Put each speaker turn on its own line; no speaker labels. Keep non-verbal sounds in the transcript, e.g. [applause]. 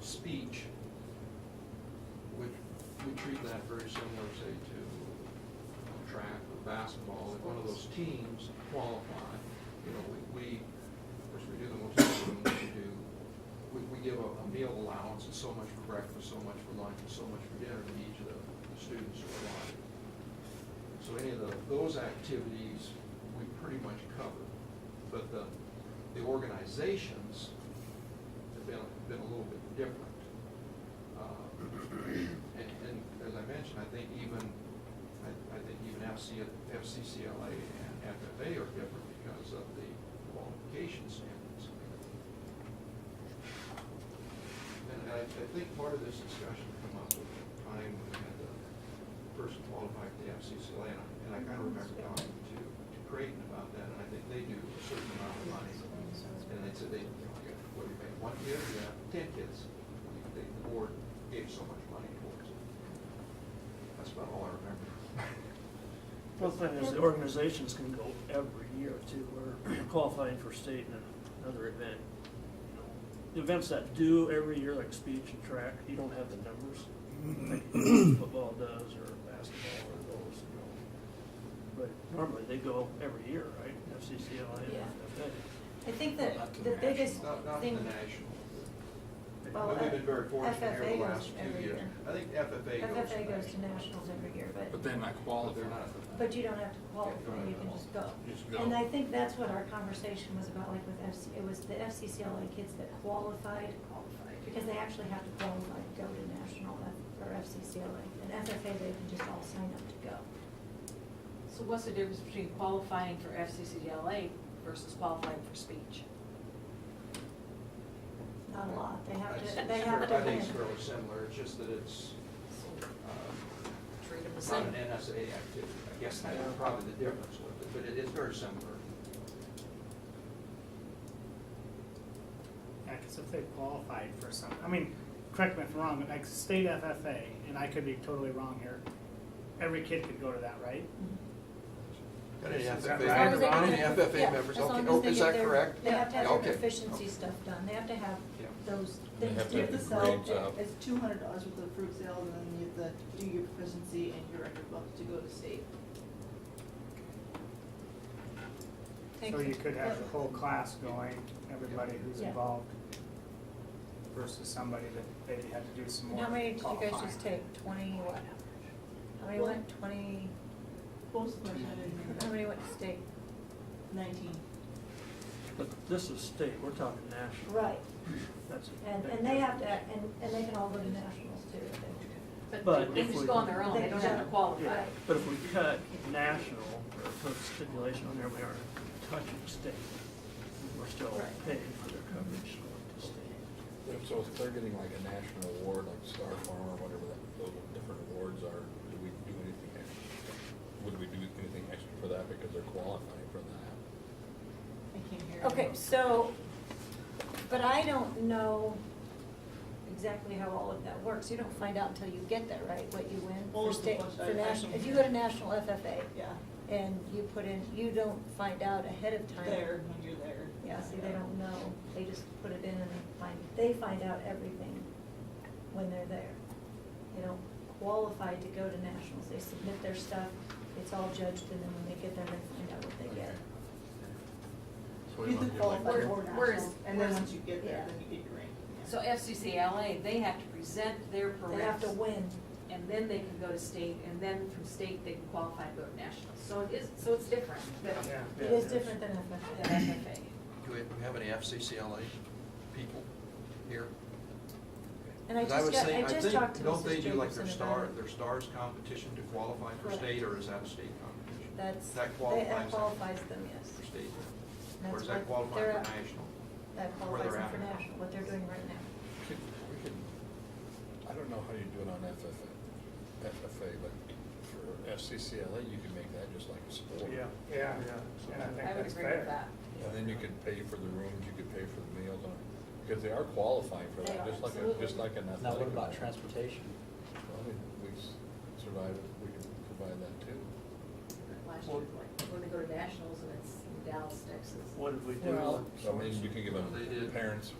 speech, which we treat that very similar, say, to track or basketball, if one of those teams qualify, you know, we, we, of course, we do the most, we do, we, we give a a meal allowance, and so much for breakfast, so much for lunch, and so much for dinner to each of the the students who are alive. So any of the- those activities, we pretty much cover. But the, the organizations have been, been a little bit different. Uh, And, and as I mentioned, I think even, I, I think even FC, FCCLA and FFA are different because of the qualification standards. And I, I think part of this discussion come up with the time when we had the person qualified for the FCCLA, and I, and I kind of remember talking to, to Creighton about that, and I think they do a certain amount of money. And they said they, you know, you have- what do you pay, one kid, you have ten kids, And they- the board gave so much money towards it. That's about all I
[laughs]
remember.
Well, the thing is, the organizations can go every year too, we're [clears throat] qualifying for state and another event. you know. The Events that do every year, like speech and track, you don't have the numbers, like football does or basketball or those, you know. But normally they go every year, right, FCCLA and
Yeah.
FFA.
I think that
Not to
the
the
biggest
Not, not the
thing,
national.
Well, uh,
But we've been very fortunate here
FFA
the
goes
last few
every
years.
year.
I think FFA goes.
FFA goes to
national.
nationals every year,
But
but,
then I
But they're
qualify.
not.
but you don't have to qualify, you can just go.
Just go.
And I think that's what our conversation was about, like with FC, it was the FCCLA kids that qualified, because they actually have to qualify to go to national F- or FCCLA. And FFA, they can just all sign up to go.
So what's the difference between qualifying for FCCLA versus qualifying for speech?
Not a lot, they have
It's-
to, they
it's
have
fair-
to
I think it's
win.
fairly similar, it's just that it's,
So
uh,
Treat them the
It's not
same.
an
uh,
NSA activity, I guess that's probably the difference with it, but it is very similar.
Yeah, because if they qualified for some, I mean, correct me if I'm wrong, but like state FFA, and I could be totally wrong here, every kid could go to that, right?
Got any
Is that
FFA
right?
members?
As long as
Any
they get
FFA
Yeah,
members,
as
okay,
long as
oh,
they
is
get
that
their-
correct?
They have to have
Okay.
their proficiency stuff done, they have to have
Yeah.
those
They
things
have
to
to
If
have
the
the
sell,
grades up.
it's two hundred dollars worth of fruit sales, and then you have to do your proficiency and your record book to go to state.
Thank
So you
you.
could have the whole class going, everybody who's
Yeah.
involved, versus somebody that they had to do some more
How many did you guys
qualifying.
just take? Twenty what? How many
One.
went, twenty,
Most of them I didn't
how
hear.
many went to state?
Nineteen.
But this is state, we're talking national,
uh, Right,
that's. a
and,
big
and they have
difference.
to, and, and they can all go to nationals too. if they want to.
But
But they
if we-
just go on their own, they don't have to qualify.
Yeah, but if we cut national, or put stipulation on there, we aren't touching state. We're still
Right.
paying for their coverage going to state.
So if they're getting like a national award, like Star Farm or whatever that, those different awards are, do we do anything extra? Would we do anything extra for that because they're qualifying for that?
I can't hear.
Okay, so, but I don't know exactly how all of that works. You don't find out until you get there, right, what you win
Well,
for
it's a
state,
bunch of-
for national. If you go to national FFA
Yeah,
and you put in, you don't find out ahead of time.
there, when you're there.
Yeah, see, they don't know, they just put it in and they find, they find out everything when they're there. They don't qualify to go to nationals, they submit their stuff, it's all judged, and then when they get there, they find out what they get.
You could qualify
Where-
for
where
nationals,
is-
and then
where's-
once you get there,
yeah.
then you get your rank. yeah.
So FCCLA, they have to present their
They have to
permits,
win,
and then they can go to state, and then from state, they can qualify and go to nationals. So it is, so it's different than
Yeah.
it is different than FFA.
than FFA.
Do we have any FCCLA people here?
And I
'Cause
just
would
got,
say-
I just
think-
talked to
Don't
Mrs.
they do like their
Jacobson about
star,
it.
their stars competition to qualify for
Correct.
state, or is that a state competition?
That's,
That
they-
qualifies
that
them
qualifies them, yes.
For state, or
That's
does that
what
qualify
they're
for
at-
national?
That
Where
qualifies
they're
them for
at.
national, what they're doing right now.
We could- we could- I don't know how you do it on FFA, FFA, but for FCCLA, you can make that just like a sport.
Yeah.
Yeah,
Yeah.
and
I
I
would
think that's
agree with
fair.
that.
And then you could pay for the rooms, you could pay for the meals, and- because they are qualifying for
They
that,
are,
just like, a-
absolutely.
just like an athletic.
Now, what about
event.
transportation?
Well, we- We s- survive, we can provide that too.
Last year, like, when they go to nationals, and it's in Dallas, Texas.
What did we do?
Well-
So I mean, you can give
They did.
a parents